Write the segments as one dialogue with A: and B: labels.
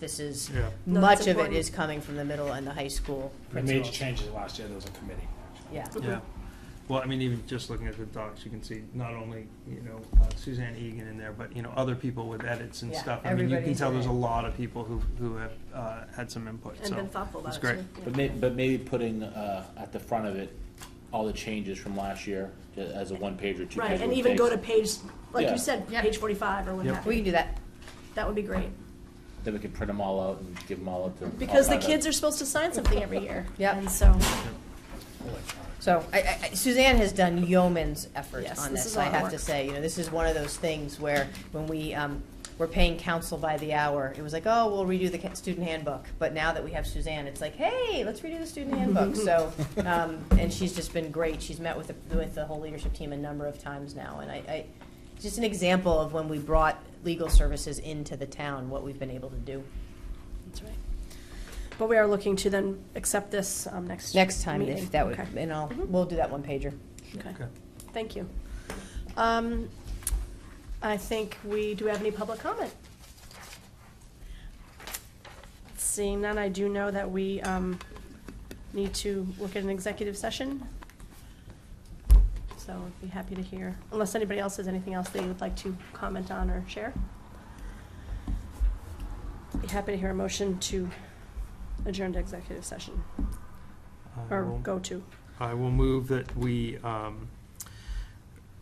A: This is,
B: Yeah.
C: No,
A: much
C: it's
A: of it
C: important.
A: is coming from the middle and the high school
D: We made
A: principals.
D: changes last year, there was a committee.
A: Yeah,
B: Yeah, well, I mean, even just looking at the docs, you can see not only, you know, uh, Suzanne Egan in there, but, you know, other people with edits and
A: Yeah,
B: stuff. I mean, you can
A: everybody's
B: tell
A: in
B: there's a
A: it.
B: lot of people who, who have, uh, had some input,
C: And
B: so.
C: been thoughtful about
B: it's
C: it. too.
B: great.
C: Yeah.
E: But may, but maybe putting, uh, at the front of it, all the changes from last year, uh, as a one page or two page.
C: Right, and even go to page, like
E: Yeah.
C: you said,
A: Yeah.
C: page forty-five or what
B: Yep.
C: have
A: we
C: you.
A: can do that.
C: That would be great.
E: Then we can print them all out and give them all up to.
C: Because the kids are supposed to sign something every year.
A: Yep.
C: And so,
A: So I- I, I- Suzanne has done yeoman's effort
C: Yes,
A: on
C: this
A: this,
C: is a
A: I
C: lot of
A: have to
C: work.
A: say. You know, this is one of those things where when we um, were paying counsel by the hour, it was like, oh, we'll redo the ca- student handbook. But now that we have Suzanne, it's like, hey, let's redo the student handbook. So, um, and she's just been great. She's met with, the- with the whole leadership team a number of times now. And I, I, just an example of when we brought legal services into the town, what we've been able to do.
C: that's right. But we are looking to then accept this um, next.
A: Next time,
C: meeting.
A: if that would,
C: Okay.
A: and I'll,
C: Mhm.
A: we'll do that one pager.
C: Okay,
B: Okay.
C: thank you. Um, I think we, do we have any public comment? Seeing none, I do know that we um, need to look at an executive session. So I'd be happy to hear, unless anybody else has anything else they would like to comment on or share. Be happy to hear a motion to adjourn to executive session,
B: I
C: or
B: will-
C: go to.
B: I will move that we um,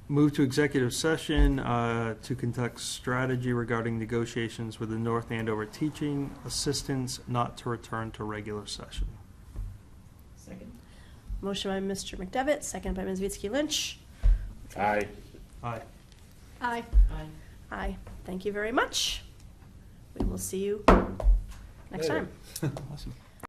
B: move to executive session uh, to conduct strategy regarding negotiations with the North Andover Teaching Assistants not to return to regular session.
C: Motion by Mr. McDevitt, second by Ms. Vitsky Lynch.
E: Aye.
B: Aye.
C: Aye. Aye. Aye. Thank you very much. We will see you next
D: Later.
C: time.
B: Awesome.